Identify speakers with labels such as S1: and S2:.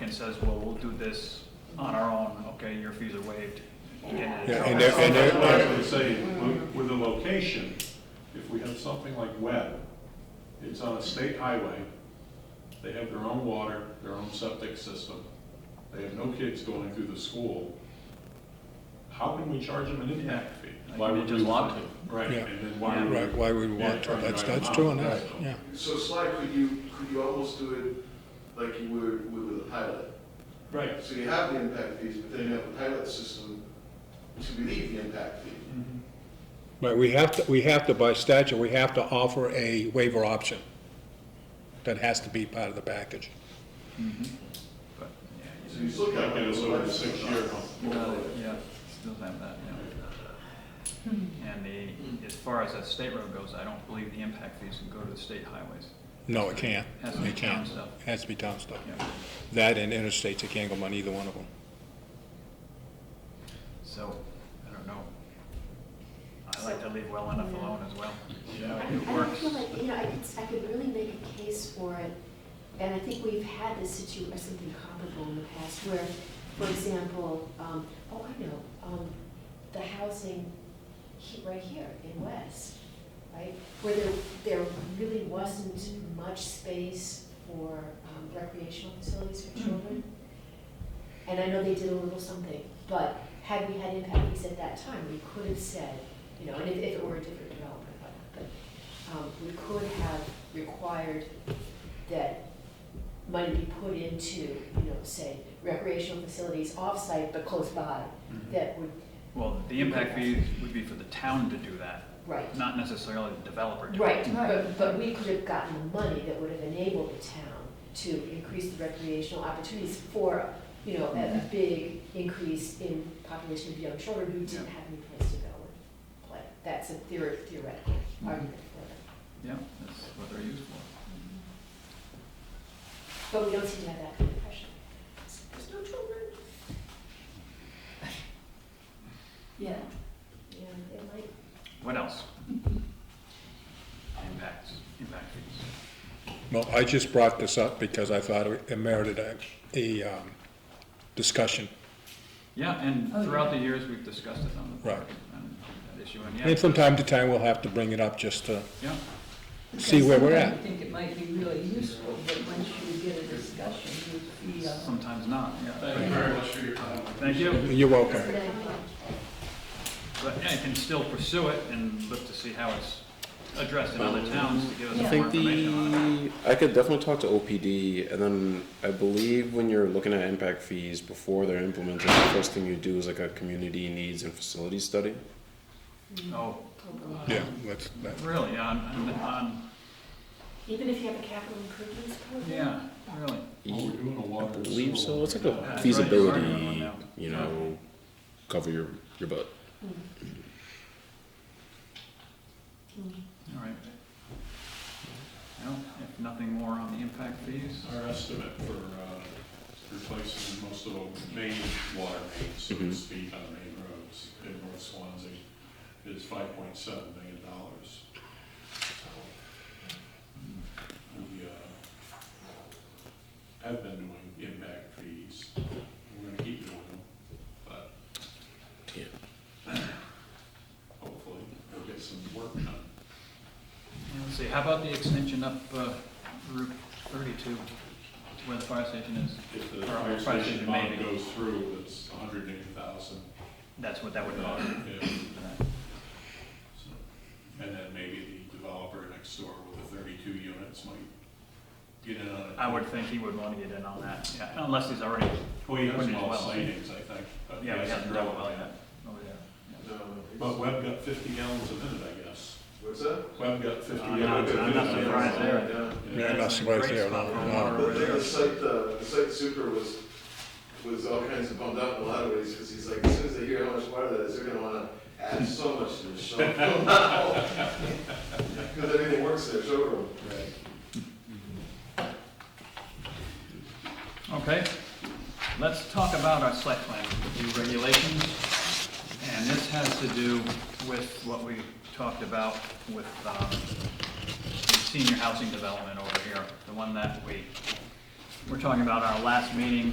S1: and says, well, we'll do this on our own, okay, your fees are waived. Get it.
S2: Yeah, and there- and there-
S3: That's what I would say, with- with a location, if we have something like Webb, it's on a state highway, they have their own water, their own septic system, they have no kids going through the school, how can we charge them an impact fee?
S1: Why would we want
S3: to? Right,
S2: Yeah.
S3: and then why would we?
S2: Right, why would we want to? That's, that's true enough, yeah.
S4: So Sly, could you, could you almost do it like you would would with a pilot?
S3: Right.
S4: So you have the impact fees, but then you have a pilot system to relieve the impact fee.
S2: But we have to, we have to, by statute, we have to offer a waiver option. That has to be part of the package.
S1: But, yeah,
S4: So you still got.
S3: That gets us over the six-year hump.
S1: you got it, yeah, still have that, yeah.
S5: Hmm.
S1: And the, as far as that state road goes, I don't believe the impact fees can go to the state highways.
S2: No, it can't.
S1: Has to be
S2: It can't.
S1: town stuff.
S2: Has to be town stuff.
S1: Yeah.
S2: That and interstates, it can't go on either one of them.
S1: So, I don't know. I like to leave well enough alone as well.
S3: Yeah.
S1: It
S5: I don't
S1: works.
S5: feel like, you know, I could, I could really make a case for it, and I think we've had this situation, or something comparable in the past, where, for example, um, oh, I know, um, the housing he, right here in West, right? Where there, there really wasn't much space for, um, recreational facilities for children. And I know they did a little something, but had we had impact fees at that time, we could have said, you know, and if, if it were a different developer, but, but, um, we could have required that money be put into, you know, say recreational facilities off-site but close by, that would,
S1: Well, the impact fees would be for the town to do that,
S5: right.
S1: not necessarily the developer to do it.
S5: Right, but, but we could have gotten the money that would have enabled the town to increase the recreational opportunities for, you know, a a big increase in population of young children who didn't
S1: Yeah.
S5: have any place to go and play. That's a theory- theoretical
S1: Mhm.
S5: argument for
S1: Yeah, that's what they're used for.
S5: it. But we don't seem to have that kind of pressure. There's no children.
S6: Yeah,
S5: Yeah, it might,
S1: What else? Impacts, impact fees.
S2: Well, I just brought this up because I thought it merited a, a, um, discussion.
S1: Yeah, and
S6: Oh,
S1: throughout
S6: yeah.
S1: the years, we've discussed it on the
S2: Right.
S1: board and that issue, and
S2: And
S1: yeah,
S2: from time to time, we'll have to bring it up just to,
S1: yeah,
S2: See where we're
S6: Because
S2: at.
S6: sometimes you think it might be really useful, but once you get a discussion, you feel.
S1: sometimes not,
S3: Thank
S1: yeah.
S3: you very much.
S4: for your time.
S1: Thank you,
S2: you're welcome.
S5: it's not-
S1: but yeah, you can still pursue it and look to see how it's addressed in other towns to give us
S6: I
S7: I
S1: more
S7: think
S1: information on it.
S7: the, I could definitely talk to OPD, and then I believe when you're looking at impact fees before they're implemented, the first thing you do is like a community needs and facilities study.
S1: Oh,
S2: Yeah, that's, that,
S1: really, on, on- on,
S5: Even if you have a capital improvements program?
S1: yeah, really.
S3: Are we doing a
S7: I
S3: water? and sewer
S7: believe so,
S3: one
S7: it's like
S3: right now?
S1: right, you're
S7: a
S1: right on
S7: feasibility,
S1: that.
S7: you know, cover your, your butt.
S1: All right. Well, if nothing more on the impact fees,
S3: Our estimate for uh, replacing most of the main water mains, so to
S7: Mhm.
S3: speak, on main roads in North Swansea is five point seven million dollars. We uh, have been doing impact fees, we're gonna keep doing them, but
S7: Yeah.
S3: hopefully we'll get some work done.
S1: Yeah, Let's see, how about the extension up uh, Route 32 to where the fire station is?
S3: If the
S1: Or
S3: fire
S1: prices
S3: station
S1: maybe.
S3: bond goes through, it's a hundred and eighty thousand.
S1: That's what that would cost.
S3: So, And then maybe the developer next door with the thirty-two units might get in on it.
S1: I would think he would want to get in on that, yeah, unless he's already,
S3: Well, he has
S1: wouldn't
S3: small
S1: as well.
S3: sightings, I think. but
S1: yeah, he
S3: he hasn't
S1: hasn't done
S3: drilled
S1: well
S3: it
S1: yet. over there.
S4: No,
S3: But
S4: it's-
S3: Webb got fifty gallons a minute, I guess.
S4: What's that?
S3: Webb got fifty
S1: I'm
S3: gallons.
S1: not-
S3: a
S1: I'm not
S3: minute.
S1: surprised there.
S4: Yeah.
S2: Yeah,
S3: Yeah.
S2: that's right
S1: Great
S2: there,
S1: spot
S2: no,
S1: for
S2: no.
S1: water over
S4: But then
S1: there.
S4: the site, uh, the site super was, was all kinds of bummed out in a lot of ways, because he's like, as soon as they hear how much water that is, they're gonna wanna add so much to the show. Because everything works in their showroom.
S1: Okay, let's talk about our site plan review regulations. And this has to do with what we talked about with um, the senior housing development over here, the one that we, we're talking about our last meeting